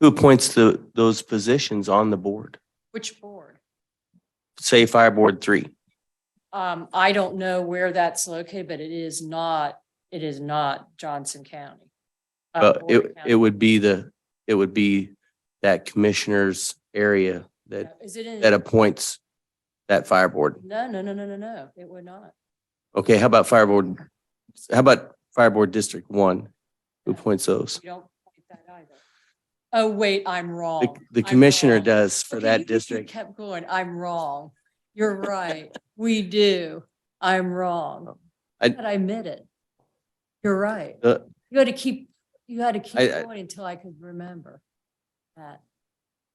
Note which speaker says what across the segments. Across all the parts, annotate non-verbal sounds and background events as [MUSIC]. Speaker 1: Who appoints the, those positions on the board?
Speaker 2: Which board?
Speaker 1: Say Fire Board Three.
Speaker 2: Um, I don't know where that's located, but it is not, it is not Johnson County. Uh,
Speaker 1: But
Speaker 2: Board
Speaker 1: it,
Speaker 2: of County.
Speaker 1: it would be the, it would be that commissioner's area that,
Speaker 2: Is it in?
Speaker 1: that appoints that fire board.
Speaker 2: No, no, no, no, no, no, it would not.
Speaker 1: Okay, how about fire board? How about Fire Board District One? Who appoints those?
Speaker 2: We don't point that either. Oh, wait, I'm
Speaker 1: The,
Speaker 2: wrong.
Speaker 1: the
Speaker 2: I'm
Speaker 1: commissioner
Speaker 2: wrong.
Speaker 1: does for
Speaker 2: Okay, you-
Speaker 1: that
Speaker 2: you
Speaker 1: district.
Speaker 2: Kept going, I'm wrong. You're right, we do. I'm wrong.
Speaker 1: Um, I-
Speaker 2: But I admit it. You're right.
Speaker 1: Uh,
Speaker 2: You had to keep, you had to keep
Speaker 1: I- I-
Speaker 2: going until I could remember that.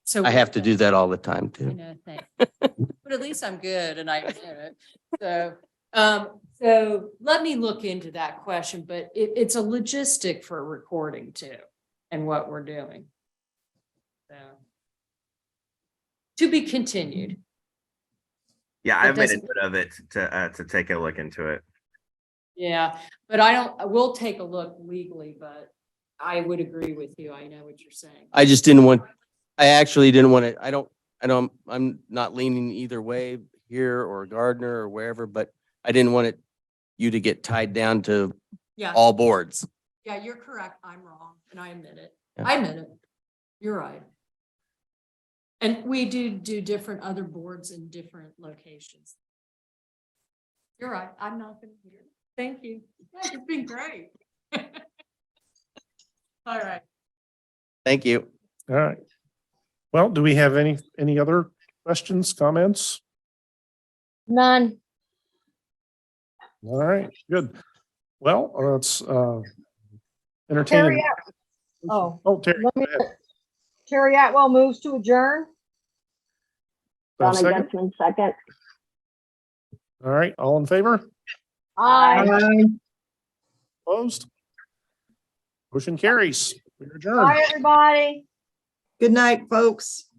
Speaker 2: So.
Speaker 1: I have to
Speaker 2: yeah,
Speaker 1: do that all the time
Speaker 2: I
Speaker 1: too.
Speaker 2: know, thank you. But at least I'm good and I admit it. So, um, so let me look into that question, but it, it's a logistic for recording too and what we're doing. So. To be continued.
Speaker 3: Yeah,
Speaker 2: It
Speaker 3: I've made a
Speaker 2: doesn't-
Speaker 3: note of it to, uh, to take a look into it.
Speaker 2: Yeah, but I don't, I will take a look legally, but I would agree with you. I know what you're saying.
Speaker 1: I just didn't want, I actually didn't want to, I don't, I don't, I'm not leaning either way here or Gardner or wherever, but I didn't want it, you to get tied down to
Speaker 2: Yeah.
Speaker 1: all boards.
Speaker 2: Yeah, you're correct. I'm wrong and I admit it.
Speaker 1: Yeah.
Speaker 2: I admit it. You're right. And we do do different other boards in different locations. You're right. I'm not gonna hear. it. Thank you. Yeah, It's been great. [LAUGHS] All right.
Speaker 1: Thank you.
Speaker 4: All right. Well, do we have any, any other questions, comments?
Speaker 5: None.
Speaker 4: All right, good. Well, uh, let's uh, entertain.
Speaker 6: Terry At- Oh,
Speaker 4: Oh, Terry.
Speaker 6: let me, Terry Atwell moves to adjourn.
Speaker 4: uh,
Speaker 7: Donna
Speaker 4: second.
Speaker 7: Jensen, second.
Speaker 4: All right, all in favor?
Speaker 6: Aye.
Speaker 4: Opposed? Motion carries. We adjourn.
Speaker 6: Bye, everybody.
Speaker 8: Good night, folks.